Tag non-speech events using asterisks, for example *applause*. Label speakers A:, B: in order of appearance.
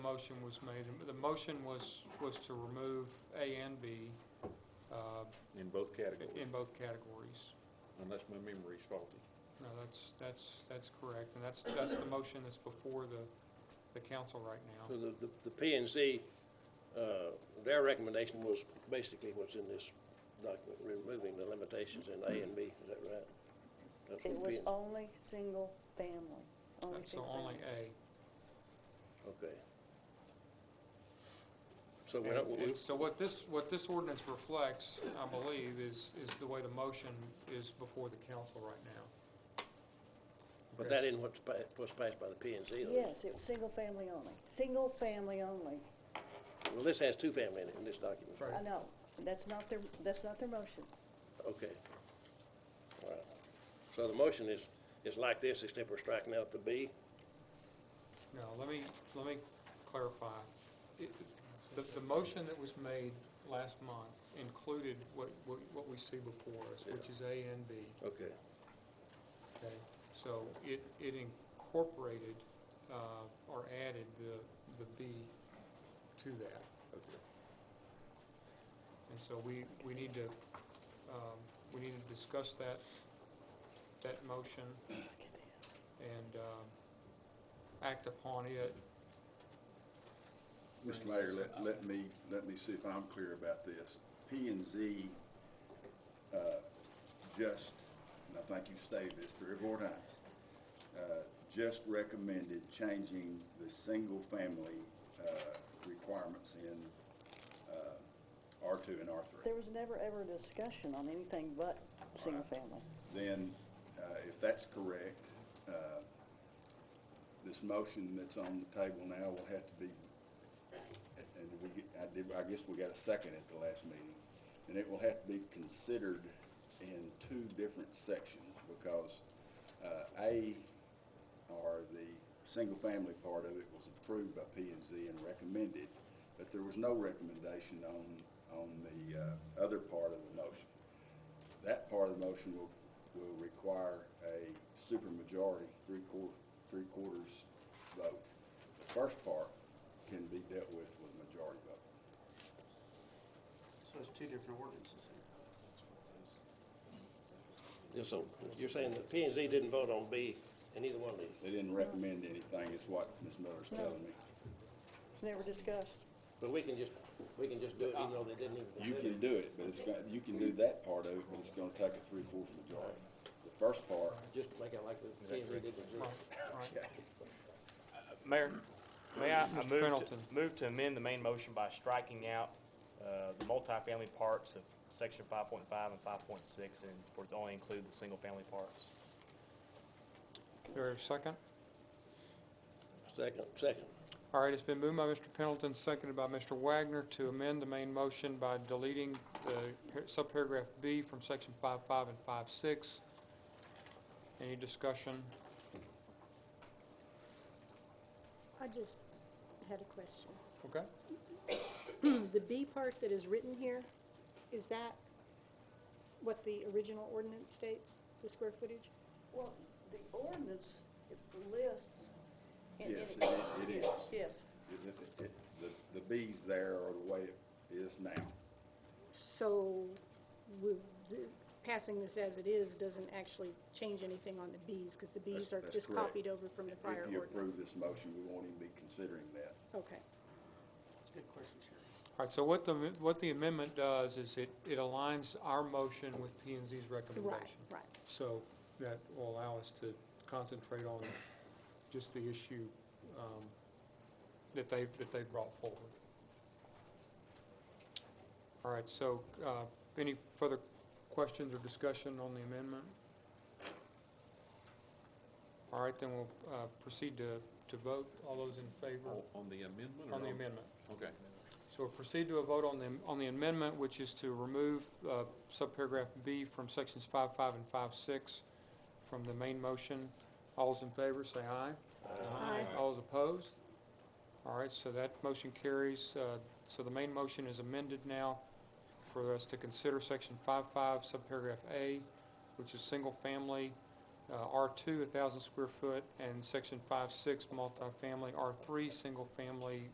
A: motion was made. The- The motion was, was to remove A and B uh,
B: in both categories,
A: in both categories.
B: unless my memory's faulty.
A: No, that's, that's, that's correct, and that's, that's the motion that's before the, the council right
C: So
A: now.
C: the, the- the P and Z, uh, their recommendation was basically what's in this document, removing the limitations in A and B, is that right? That's
D: It
C: what
D: was
C: P and-
D: only single family, only
A: So
D: single
A: only
D: family.
A: A.
C: Okay. So we don't,
A: And-
C: we-
A: and So what this, what this ordinance reflects, I believe, is, is the way the motion is before the council right now.
C: but that isn't what's pa- what's passed by the P and Z. though.
D: Yes, it was single family only, single family only.
C: Well, this has two family in it, in this document.
A: Right.
D: I know, that's not their, that's not their motion.
C: Okay. All right. So the motion is, is like this, except we're striking out the B.
A: No, let me, let me clarify. It- The, the motion that was made last month included what, what what we see before us, which is A and B.
C: Okay.
A: Okay, so it, it incorporated, uh, or added the, the B to that.
C: Okay.
A: And so we, we need to, um, we need to discuss that, that motion and, um, act upon it.
E: Mr. Mayor, let, let me, let me see if I'm clear about this. P and Z, uh, just, and I think you've stated this three or four times, uh, just recommended changing the single-family, uh, requirements in, uh, R two and R three.
D: There was never ever a discussion on anything but single family.
E: Then, uh, if that's correct, uh, this motion that's on the table now will have to be, and we, get- I did, I guess we got a second at the last meeting, and it will have to be considered in two different sections, because uh, A, or the single-family part of it was approved by P and Z and recommended, but there was no recommendation on, on the uh, other part of the motion. That part of the motion will, will require a supermajority, three quarter, three quarters vote. The first part can be dealt with with a majority vote.
F: So it's two different ordinances here.
C: Yes, so you're saying the P and Z didn't vote on B in either one of these,
E: They didn't recommend anything, is what Ms. Miller's telling me.
D: It's never discussed.
C: but we can just, we can just do it even though they didn't even
E: You
C: consider
E: can
C: it.
E: do it, but it's, got- you can do that part of it, but it's gonna take a three quarters majority. The first part,
C: Just make it like the P and Z did with
A: Right,
C: Z.
A: right.
F: Mayor, may I, I
A: Mr.
F: move to,
A: Pendleton.
F: move to amend the main motion by striking out, uh, the multifamily parts of section five point five and five point six, and for it to only include the single-family parts.
A: There a second?
C: Second, second.
A: All right, it's been moved by Mr. Pendleton, seconded by Mr. Wagner to amend the main motion by deleting the par- subparagraph B from section 5.5 and 5.6. Any discussion?
G: I just had a question.
A: Okay.
G: The B part that is written here, is that what the original ordinance states, the square footage?
D: Well, the ordinance lists.
E: yes, it it is.
D: *coughs* Yes,
E: It- it- it- The, the B's there are the way it is now.
G: So we- the- passing this as it is doesn't actually change anything on the Bs, because the Bs
E: That's-
G: are
E: that's
G: just
E: correct.
G: copied over from the prior
E: If you approve
G: ordinance.
E: this motion, we won't even be considering that.
G: Okay.
F: Good question, Chair.
A: All right, so what the, what the amendment does is it, it aligns our motion with p and Z's recommendation.
G: right.
A: So that will allow us to concentrate on just the issue um, that they, that they brought forward. All right, so uh, any further questions or discussion on the amendment? All right, then we'll uh, proceed to, to vote. All those in favor
B: On on the amendment or
A: on the
B: on-
A: amendment?
B: Okay.
A: So we'll proceed to a vote on the, on the amendment, which is to remove uh, subparagraph B from sections 5.5 and 5.6 from the main motion. All's in favor, say aye.
G: Aye.
A: All's opposed? All right, so that motion carries. uh, So the main motion is amended now for us to consider section 5.5 subparagraph A, which is single-family, uh, R2, 1,000 square foot, and section 5.6 multifamily, R3, single-family,